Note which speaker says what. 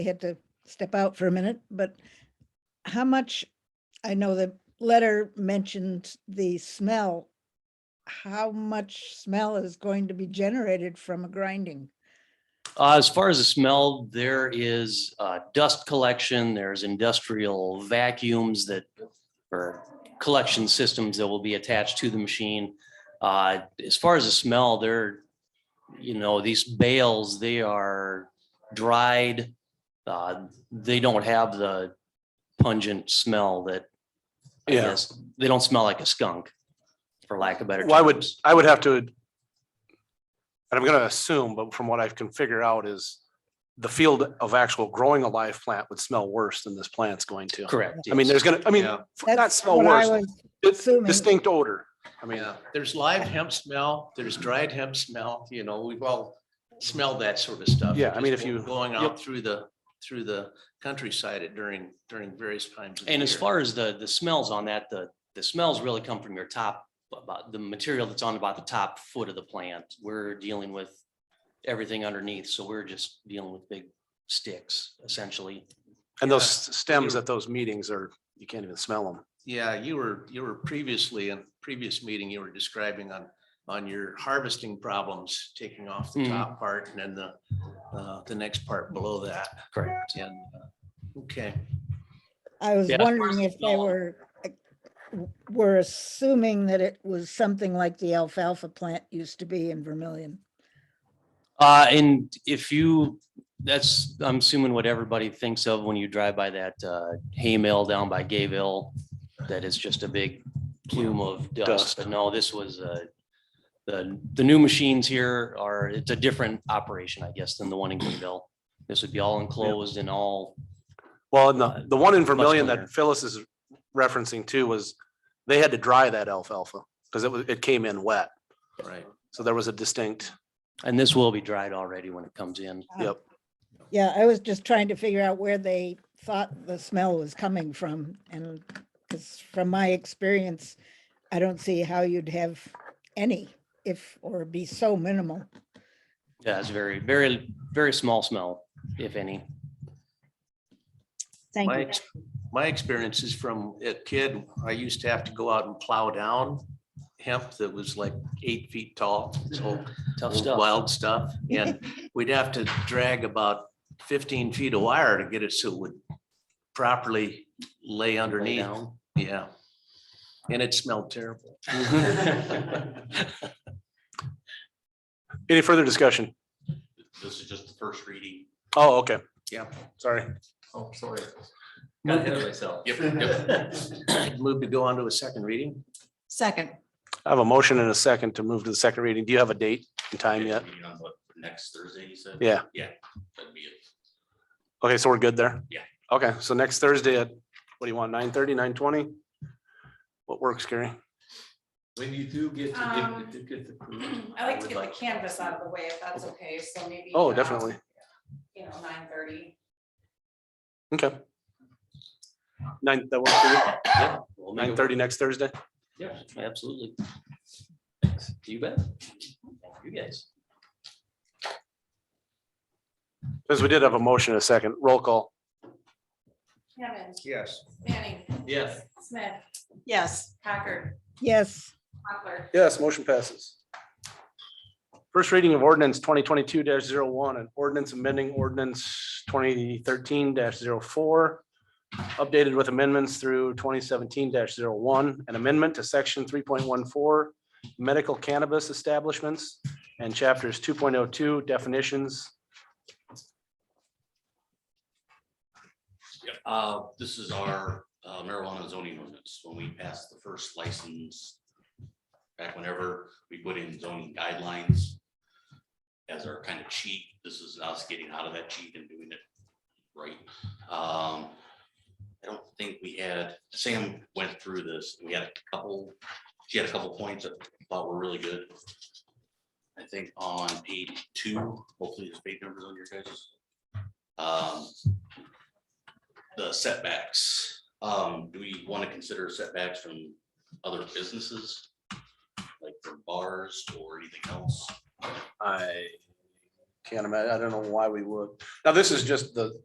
Speaker 1: they had to step out for a minute, but how much, I know the letter mentioned the smell. How much smell is going to be generated from a grinding?
Speaker 2: Uh, As far as the smell, there is uh, dust collection, there's industrial vacuums that or collection systems that will be attached to the machine. Uh, As far as the smell, they're, you know, these bales, they are dried. uh, They don't have the pungent smell that, I
Speaker 3: Yeah.
Speaker 2: guess, they don't smell like a skunk, for lack of better.
Speaker 3: Well, I would,
Speaker 2: terms.
Speaker 3: I would have to. And I'm gonna assume, but from what I can figure out is the field of actual growing a live plant would smell worse than this plant's going to.
Speaker 2: Correct.
Speaker 3: I mean,
Speaker 2: yes.
Speaker 3: there's gonna, I mean,
Speaker 4: Yeah.
Speaker 3: f- not
Speaker 1: That's
Speaker 3: smell
Speaker 1: what I
Speaker 3: worse,
Speaker 1: was
Speaker 3: it's
Speaker 1: assuming.
Speaker 3: distinct odor. I mean,
Speaker 4: Yeah, there's live hemp smell, there's dried hemp smell, you know, we've all smelled that sort of stuff.
Speaker 3: Yeah, I mean, if
Speaker 4: Just
Speaker 3: you-
Speaker 4: Going
Speaker 3: yep.
Speaker 4: out through the, through the countryside at during, during various times. of the
Speaker 2: And as
Speaker 4: year.
Speaker 2: far as the, the smells on that, the, the smells really come from your top, about the material that's on about the top foot of the plant. We're dealing with everything underneath, so we're just dealing with big sticks essentially.
Speaker 3: and those
Speaker 4: Yeah.
Speaker 3: s- stems at those meetings are, you can't even smell them.
Speaker 4: Yeah, you were, you were previously, in previous meeting, you were describing on, on your harvesting problems, taking off the
Speaker 2: Mhm.
Speaker 4: top part and then the, uh, the next part below that.
Speaker 2: Correct.
Speaker 4: And, uh, okay,
Speaker 1: I was
Speaker 2: Yeah, as far
Speaker 1: wondering
Speaker 2: as
Speaker 1: if they
Speaker 2: smell.
Speaker 1: were, like, w- were assuming that it was something like the alfalfa plant used to be in Vermillion.
Speaker 2: Uh, and if you, that's, I'm assuming what everybody thinks of when you drive by that, uh, hay mill down by Gayville. That is just a big plume of dust,
Speaker 3: Dust.
Speaker 2: but no, this was, uh, the, the new machines here are, it's a different operation, I guess, than the one in Gayville. This would be all enclosed and all,
Speaker 3: Well, and the, the one in Vermillion
Speaker 2: cleaner.
Speaker 3: that Phyllis is referencing too was they had to dry that alfalfa because it was, it came in wet.
Speaker 4: right.
Speaker 3: So there was a distinct,
Speaker 2: and this will be dried already when it comes in.
Speaker 1: Ah.
Speaker 3: yep.
Speaker 1: Yeah, I was just trying to figure out where they thought the smell was coming from and because from my experience, I don't see how you'd have any if, or be so minimal.
Speaker 2: Yeah, it's very, very, very small smell, if any.
Speaker 5: Thank
Speaker 4: My,
Speaker 5: you.
Speaker 4: ex- my experience is from a kid, I used to have to go out and plow down hemp that was like eight feet tall, this whole
Speaker 2: Tough stuff.
Speaker 4: wild stuff. And we'd have to drag about fifteen feet of wire to get it so it would properly lay underneath.
Speaker 2: down.
Speaker 4: Yeah. And it smelled terrible.
Speaker 3: Any further discussion?
Speaker 6: This is just the first reading.
Speaker 3: Oh, okay.
Speaker 4: Yeah.
Speaker 3: Sorry.
Speaker 6: Oh, sorry.
Speaker 4: Got ahead of
Speaker 6: myself. Yep, yep.
Speaker 4: Move to go on to a second reading.
Speaker 5: Second,
Speaker 3: I have a motion and a second to move to the second reading. Do you have a date and time yet?
Speaker 6: Meeting on what, Next Thursday, you said?
Speaker 3: Yeah.
Speaker 6: Yeah. that'd be it.
Speaker 3: Okay, so we're good there?
Speaker 6: Yeah.
Speaker 3: Okay, so next Thursday at, what do you want, nine thirty, nine twenty? What works, Gary?
Speaker 6: When you do get
Speaker 7: Um,
Speaker 6: to get the.
Speaker 7: I like to get the canvas out of the way if that's okay, so maybe.
Speaker 3: Oh,
Speaker 7: um,
Speaker 3: definitely.
Speaker 7: You know, nine thirty.
Speaker 3: Okay. Nine, that works for you?
Speaker 2: We'll make it
Speaker 3: Nine thirty next Thursday?
Speaker 2: Yeah, absolutely. Thanks. You bet. You guys.
Speaker 3: Because we did have a motion and a second. Roll call.
Speaker 7: Hammond,
Speaker 4: Yes.
Speaker 7: Manning,
Speaker 6: Yes.
Speaker 7: Smith,
Speaker 5: yes,
Speaker 7: Packard,
Speaker 1: Yes.
Speaker 7: Mochler.
Speaker 3: Yes, motion passes. First reading of ordinance twenty twenty-two one and ordinance amending ordinance twenty thirteen 4 Updated with amendments through twenty seventeen one an amendment to section three point one four. Medical cannabis establishments and chapters two point oh two definitions.
Speaker 6: Yep, Uh, this is our uh, marijuana zoning ordinance. When we passed the first license, back whenever we put in zoning guidelines as our kind of cheat, this is us getting out of that cheat and doing it right. Um, I don't think we had, Sam went through this. We had a couple, she had a couple points that I thought were really good. I think on page two, hopefully the page numbers on your guys. Um, the setbacks. Um, do we want to consider setbacks from other businesses? Like from bars or anything else?
Speaker 3: I can't imagine, I don't know why we would. Now, this is just the,